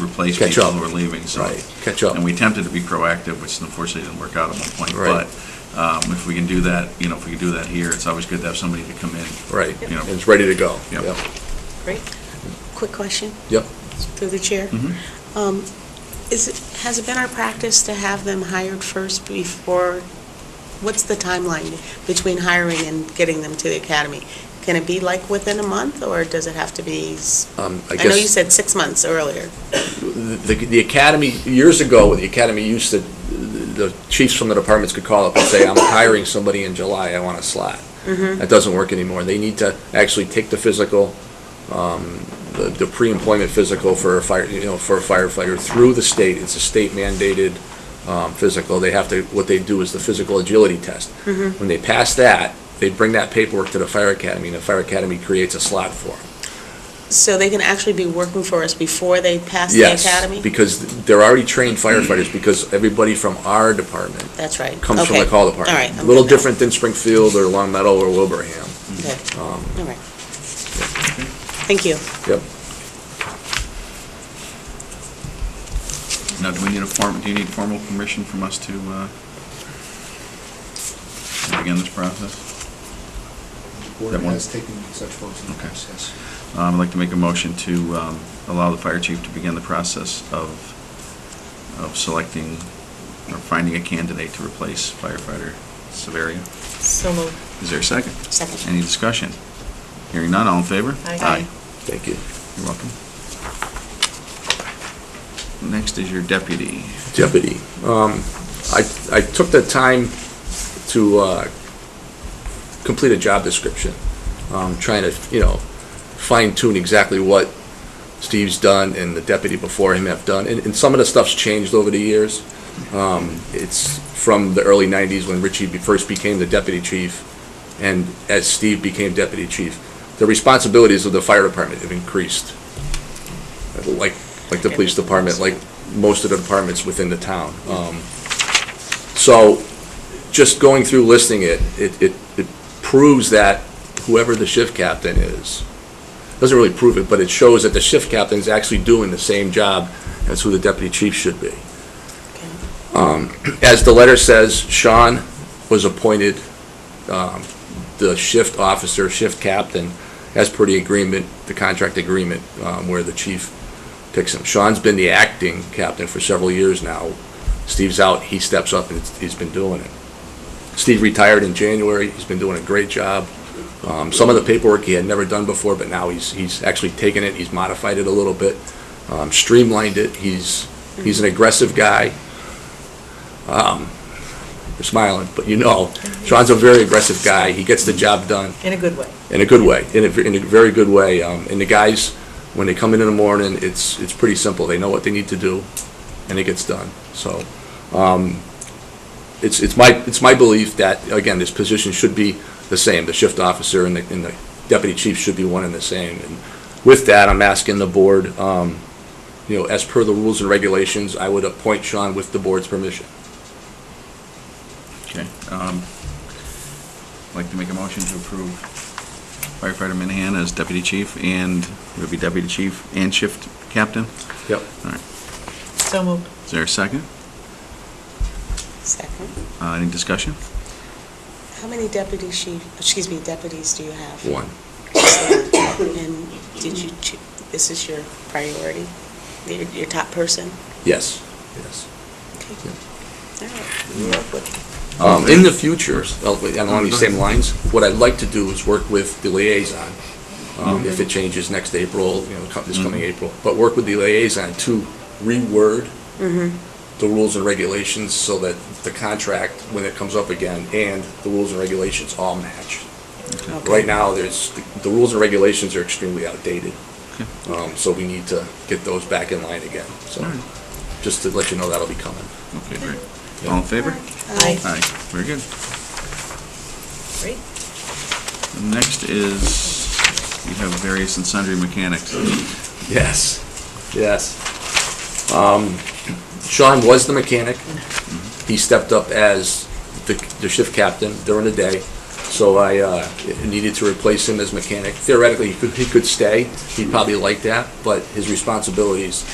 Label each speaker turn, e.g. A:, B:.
A: replace
B: Catch
A: people
B: up.
A: who are leaving, so.
B: Right, catch up.
A: And we attempted to be proactive, which unfortunately didn't work out at one point.
B: Right.
A: But um, if we can do that, you know, if we can do that here, it's always good to have somebody to come in.
B: Right,
A: You know.
B: and it's ready to go.
A: Yep.
C: Quick question?
B: Yep. Mm-hmm.
C: Through the chair.
A: Mhm.
C: Um, Is, it has it been our practice to have them hired first before, what's the timeline between hiring and getting them to the academy? Can it be like within a month, or does it have to be, s-
B: Um, I
C: I know you
B: guess,
C: said six months earlier.
B: the, the academy, years ago, the academy used to, the chiefs from the departments could call up and say, I'm hiring somebody in July, I want a slot.
C: Mm-hmm.
B: That doesn't work anymore. They need to actually take the physical, um, the, the pre-employment physical for a fire, you know, for a firefighter through the state. It's a state mandated, um, physical. They have to, what they do is the physical agility test.
C: Mm-hmm.
B: When they pass that, they bring that paperwork to the fire academy, and the fire academy creates a slot for 'em.
C: So they can actually be working for us before they pass the
B: Yes,
C: academy?
B: because they're already trained firefighters, because everybody from our department
C: That's right.
B: comes from the
C: Okay.
B: call department.
C: All right.
B: A
C: I'm
B: little
C: good now.
B: different than Springfield or Long Meadow or Wilbraham.
C: Okay.
B: Um,
C: All right. Thank you.
B: Yep.
A: Now, do we need a form, do you need formal permission from us to uh, to begin this process?
D: Board
A: That one?
D: has taken such votes in the
A: Okay.
D: past, yes.
A: Um, I'd like to make a motion to um, allow the fire chief to begin the process of, of selecting or finding a candidate to replace firefighter Severia.
C: So moved.
A: Is there a second?
C: Second.
A: Any discussion? Hearing none, all in favor?
C: Aye.
B: Thank you.
A: You're welcome. Next is your deputy.
B: Deputy. Um, I, I took the time to, uh, complete a job description. Um, trying to, you know, fine tune exactly what Steve's done and the deputy before him have done. And, and some of the stuff's changed over the years. Um, it's from the early nineties when Richie be- first became the deputy chief and as Steve became deputy chief. The responsibilities of the fire department have increased. Like, like the police department, like most of the departments within the town. Um, So, just going through listing it, it, it it proves that whoever the shift captain is, doesn't really prove it, but it shows that the shift captain is actually doing the same job as who the deputy chief should be. Um,
C: Okay.
B: As the letter says, Sean was appointed um, the shift officer, shift captain, as per the agreement, the contract agreement, um, where the chief picks him. Sean's been the acting captain for several years now. Steve's out, he steps up, and he's been doing it. Steve retired in January, he's been doing a great job. Um, Some of the paperwork he had never done before, but now he's, he's actually taken it, he's modified it a little bit, um, streamlined it, he's, he's an aggressive guy. Um, You're smiling, but you know, Sean's a very aggressive guy, he gets the job done
E: In a good way.
B: in a good way, in a, in a very good way. Um, and the guys, when they come in in the morning, it's, it's pretty simple. They know what they need to do, and it gets done. So, um, it's, it's my, it's my belief that, again, this position should be the same. The shift officer and the, and the deputy chief should be one and the same. And with that, I'm asking the board, um, you know, as per the rules and regulations, I would appoint Sean with the board's permission.
A: Okay. um, I'd Like to make a motion to approve firefighter Minahan as deputy chief and, it would be deputy chief and shift captain?
B: Yep.
A: All right.
E: So moved.
A: Is there a second?
C: Second.
A: Uh, Any discussion?
C: How many deputy chief, excuse me, deputies do you have?
B: One.
C: And did you, choo- this is your priority, your, your top person?
B: Yes. Yes.
C: Okay.
B: Yeah.
C: All right, we'll work with it.
B: Um, In the future, uh, along these same lines, what I'd like to do is work with the liaison, um, if it changes next April, you know, co- this coming
A: Mhm.
B: April, but work with the liaison to reword the rules and regulations so that the contract, when it comes up again, and the rules and regulations all match.
C: Okay.
B: Right now, there's, the rules and regulations are extremely outdated,
A: Okay.
B: um, so we need to get those back in line again. So,
A: All right.
B: just to let you know that'll be coming.
A: Okay, great. All in favor?
C: Aye.
A: Aye, very good.
E: Great.
A: Next is, you have various and sundry mechanics.
B: Yes, yes. Um, Sean was the mechanic.
A: Mm-hmm.
B: He stepped up as the the shift captain during the day, so I uh, needed to replace him as mechanic. Theoretically, he could he could stay, he'd probably like that, but his responsibilities